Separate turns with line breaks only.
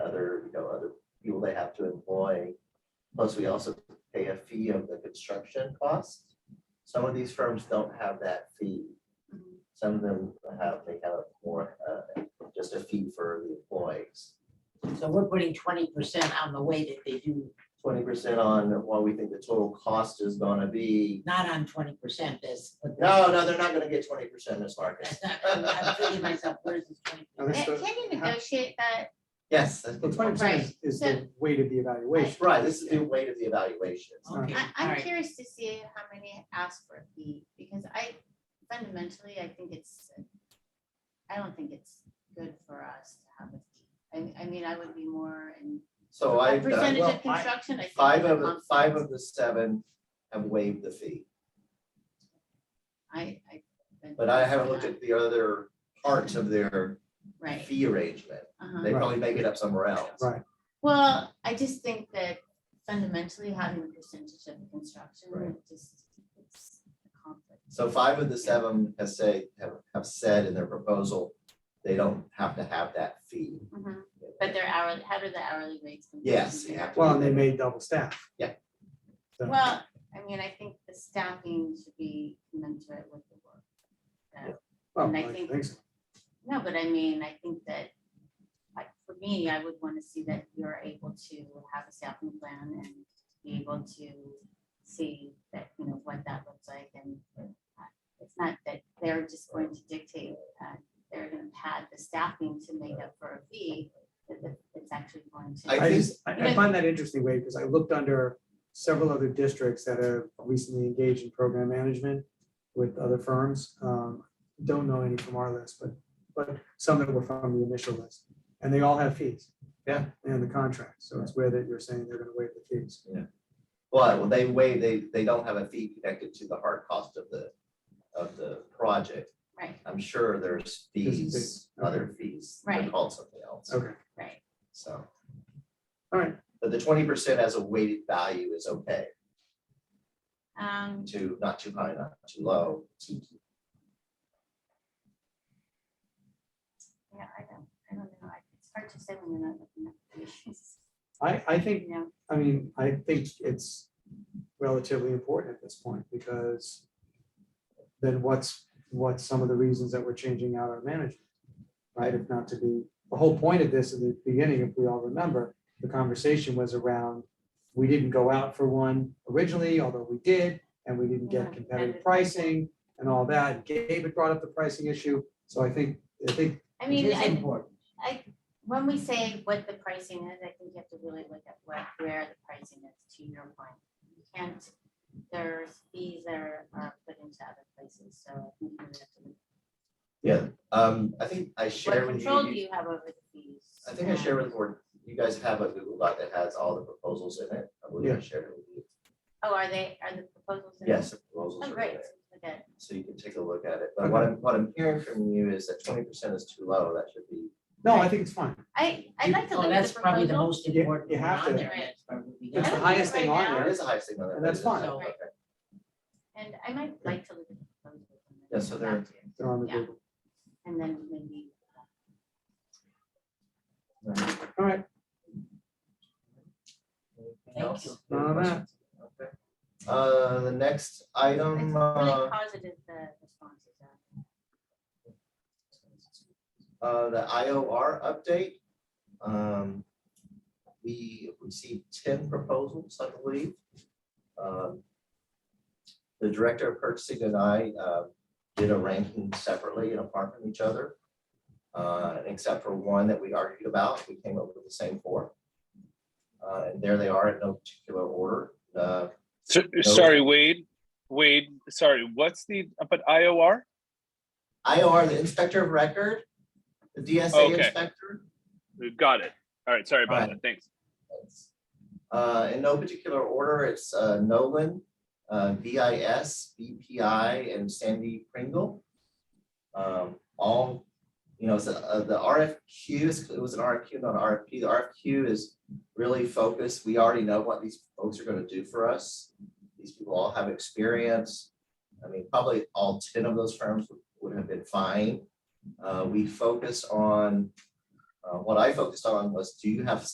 employ. Plus, we also pay a fee of the construction cost. Some of these firms don't have that fee. Some of them have, they have more, uh, just a fee for the employees.
So we're putting twenty percent on the way that they do,
Twenty percent on what we think the total cost is gonna be.
not on twenty percent, that's. what the-
No, no, they're not gonna get twenty percent in this market.
That's not, I'm I'm thinking myself, where's this twenty?
Can can you negotiate that?
Yes,
Well, twenty percent is the weight of the evaluation.
right, this is the weight of the evaluation.
Okay,
I,
all
I'm
right.
curious to see how many ask for a fee, because I fundamentally, I think it's, I don't think it's good for us to have a fee. I, I mean, I would be more in
So Oh, I've done,
percentage
well,
of construction. I think
five
it's a
of, the
month.
five of the seven have waived the fee.
I, I.
But I haven't looked at the other parts of their
Right,
fee arrangement.
uh-huh.
They probably make it up somewhere else.
Right.
Well, I just think that fundamentally having a percentage of construction
Right.
would just, it's a conflict.
So five of the seven has say, have, have said in their proposal, they don't have to have that fee.
Mhm. But their hourly, how do the hourly rates? compare
Yes,
to
you
the
have to-
Well, and they made double staff.
Yeah.
So-
Well, I mean, I think the staffing should be commensurate with the work. Uh,
Well,
and I
I
think-
think so.
No, but I mean, I think that, like, for me, I would want to see that you're able to have a staffing plan and be able to see that, you know, what that looks like and uh, it's not that they're just going to dictate, uh, they're going to pad the staffing to make up for a fee, that that it's actually going to.
I
I
think-
just, I I find that interesting, Wade, because I looked under several other districts that have recently engaged in program management with other firms. Um, Don't know any from our list, but, but some that were from the initial list. And they all have fees.
Yeah.
And the contract. So it's where that you're saying they're gonna waive the fees.
Well, well, they waive, they, they don't have a fee connected to the hard cost of the, of the project.
Right,
I'm sure there's
There's a
fees,
fee, okay.
other fees. They're
Right.
called something else,
Okay,
right.
so.
all right.
But the twenty percent as a weighted value is okay,
Um,
too, not too high, not too low.
Yeah, I don't, I don't know. I- It's hard to say when you're not looking at the issues.
I, I think
You know,
I mean, I think it's relatively important at this point because then what's, what's some of the reasons that we're changing out our management? Right, if not to be, the whole point of this at the beginning, if we all remember, the conversation was around, we didn't go out for one originally, although we did, and we didn't
Yeah,
get competitive
competitive
pricing and all that. Gabe had brought up the pricing issue, so I think, I think
I
It
mean,
is
I,
important.
I, when we say what the pricing is, I think you have to really look at what, where the pricing is to your point. You can't, there's fees that are, are put into other places, so. I think you have to look
Yeah, um, I think I
at
shared
What
with
control do
you,
you have over the fees?
I think I
Um,
shared with you, you guys have a Google Doc that has all the proposals in it. I believe I
Yeah.
shared it with you.
Oh, are they, are the proposals? in there?
Yes, the proposals
Oh,
are
great.
there,
Okay.
so you can take a look at it. But what I'm, what I'm hearing from you is that twenty percent is too low, that should be,
No, I think it's fine.
I, I'd like to
Well,
look at
Oh, that's
the
probably the
proposal.
most
You- you
important one
have
on
to.
there. that's probably the-
It's
I
the
don't
highest
think
thing
right
on
now-
it
there.
is a high signal.
And that's fine.
So-
Okay.
And I might like to look at the proposal.
Yeah, so they're-
They're on the
Yeah.
Google.
And then maybe. uh,
All right,
Anything
Thank
else?
you.
None of that.
Okay. Uh, the next
It's
item,
really
uh,
positive, the responses are.
uh, the IOR update. Um, we received ten proposals, I believe. Um, The director of purchasing and I, uh, did a ranking separately and apart from each other. Uh, except for one that we argued about, we came up with the same four. Uh, and there they are in no particular order. Uh,
So, sorry, Wade, Wade, sorry, what's the, but IOR?
IOR, the inspector of record, the DSA
Okay.
inspector,
Got it. All right, sorry about
Alright.
that. Thanks.
Uh, in no particular order, it's uh, Nolan, uh, VIS, BPI, and Sandy Pringle. Um, all, you know, so, uh, the RFQ is, it was an RFQ, not an RFP. The RFQ is really focused. We already know what these folks are gonna do for us. These people all have experience. I mean, probably all ten of those firms would- would have been fine. Uh, we focus on, uh, what I focused on was, do you have